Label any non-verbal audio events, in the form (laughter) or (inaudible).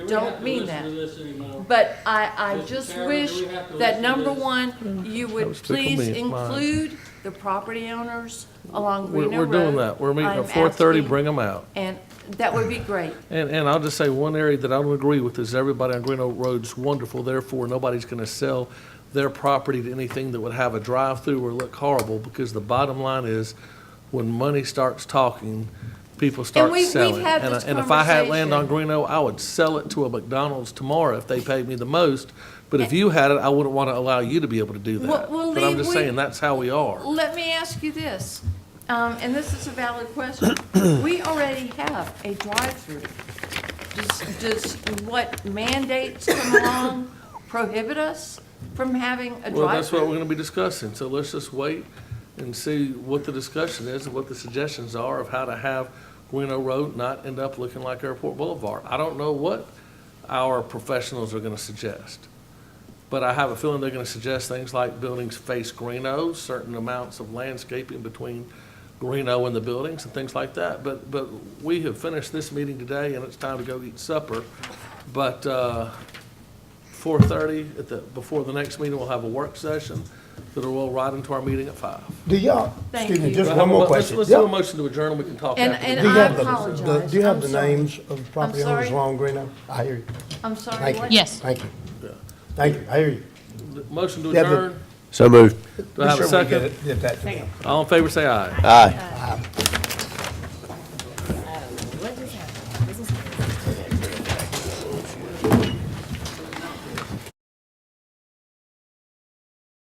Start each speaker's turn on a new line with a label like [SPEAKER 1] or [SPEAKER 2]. [SPEAKER 1] don't mean that.
[SPEAKER 2] Do we have to listen to this anymore?
[SPEAKER 1] But I, I
[SPEAKER 2] Mr.
[SPEAKER 1] just
[SPEAKER 2] Chairman, do
[SPEAKER 1] wish
[SPEAKER 2] we have to listen
[SPEAKER 1] that
[SPEAKER 2] to
[SPEAKER 1] number
[SPEAKER 2] this?
[SPEAKER 1] one, you
[SPEAKER 3] That
[SPEAKER 1] would
[SPEAKER 3] was tickle
[SPEAKER 1] please
[SPEAKER 3] me, mine.
[SPEAKER 1] include the property owners along
[SPEAKER 3] We're,
[SPEAKER 1] Reno
[SPEAKER 3] we're
[SPEAKER 1] Road.
[SPEAKER 3] doing that. We're meeting
[SPEAKER 1] I'm
[SPEAKER 3] at four thirty,
[SPEAKER 1] asking-
[SPEAKER 3] bring them out.
[SPEAKER 1] And that would be great.
[SPEAKER 3] And, and I'll just say, one area that I don't agree with is everybody on Green Oak Road's wonderful, therefore nobody's gonna sell their property to anything that would have a drive-through or look horrible, because the bottom line is, when money starts talking, people start
[SPEAKER 1] we- we've
[SPEAKER 3] selling.
[SPEAKER 1] had
[SPEAKER 3] And I-
[SPEAKER 1] this
[SPEAKER 3] And if I had land on
[SPEAKER 1] conversation.
[SPEAKER 3] Green Oak, I would sell it to a McDonald's tomorrow if they paid me the most, but if you had it, I wouldn't wanna allow you to be able to do
[SPEAKER 1] Well-
[SPEAKER 3] that.
[SPEAKER 1] well,
[SPEAKER 3] But I'm
[SPEAKER 1] Lee,
[SPEAKER 3] just
[SPEAKER 1] we-
[SPEAKER 3] saying, that's how we are.
[SPEAKER 1] Let me ask you this, um, and this is a valid
[SPEAKER 3] (coughs)
[SPEAKER 1] question. We already have a drive-through. Does, does what mandates come
[SPEAKER 3] (coughs)
[SPEAKER 1] along prohibit us from having a drive-through?
[SPEAKER 3] Well, that's what we're gonna be discussing, so let's just wait and see what the discussion is and what the suggestions are of how to have Guino Road not end up looking like Airport Boulevard. I don't know what our professionals are gonna suggest, but I have a feeling they're gonna suggest things like buildings face Guino, certain amounts of landscaping between Guino and the buildings and things like that. But, but we have finished this meeting today and it's time to go eat supper, but, uh, four thirty at the, before the next meeting, we'll have a work session that'll roll right into our meeting at five.
[SPEAKER 4] Do y'all,
[SPEAKER 1] Thank
[SPEAKER 4] excuse me,
[SPEAKER 1] you.
[SPEAKER 4] just
[SPEAKER 3] But
[SPEAKER 4] one
[SPEAKER 3] how-
[SPEAKER 4] more
[SPEAKER 3] let's-
[SPEAKER 4] question.
[SPEAKER 3] Let's do a
[SPEAKER 4] Yeah.
[SPEAKER 3] motion to adjourn, we can talk
[SPEAKER 1] And-
[SPEAKER 3] after.
[SPEAKER 1] and
[SPEAKER 3] this.
[SPEAKER 4] Do you
[SPEAKER 1] I
[SPEAKER 4] have the-
[SPEAKER 1] apologize.
[SPEAKER 4] the- Do you have
[SPEAKER 1] I'm
[SPEAKER 4] the
[SPEAKER 1] sorry.
[SPEAKER 4] names of the property owners
[SPEAKER 1] sorry.
[SPEAKER 4] along Greeno? I hear you.
[SPEAKER 1] I'm sorry,
[SPEAKER 4] Thank you.
[SPEAKER 1] what?
[SPEAKER 5] Yes.
[SPEAKER 4] Thank you. Thank you, I hear you.
[SPEAKER 3] Motion to
[SPEAKER 4] Yeah, but-
[SPEAKER 3] adjourn,
[SPEAKER 6] So moved.
[SPEAKER 3] do I have a
[SPEAKER 4] Be sure we
[SPEAKER 3] second?
[SPEAKER 4] Get it- get that to them.
[SPEAKER 3] All in favor, say aye.
[SPEAKER 6] Aye.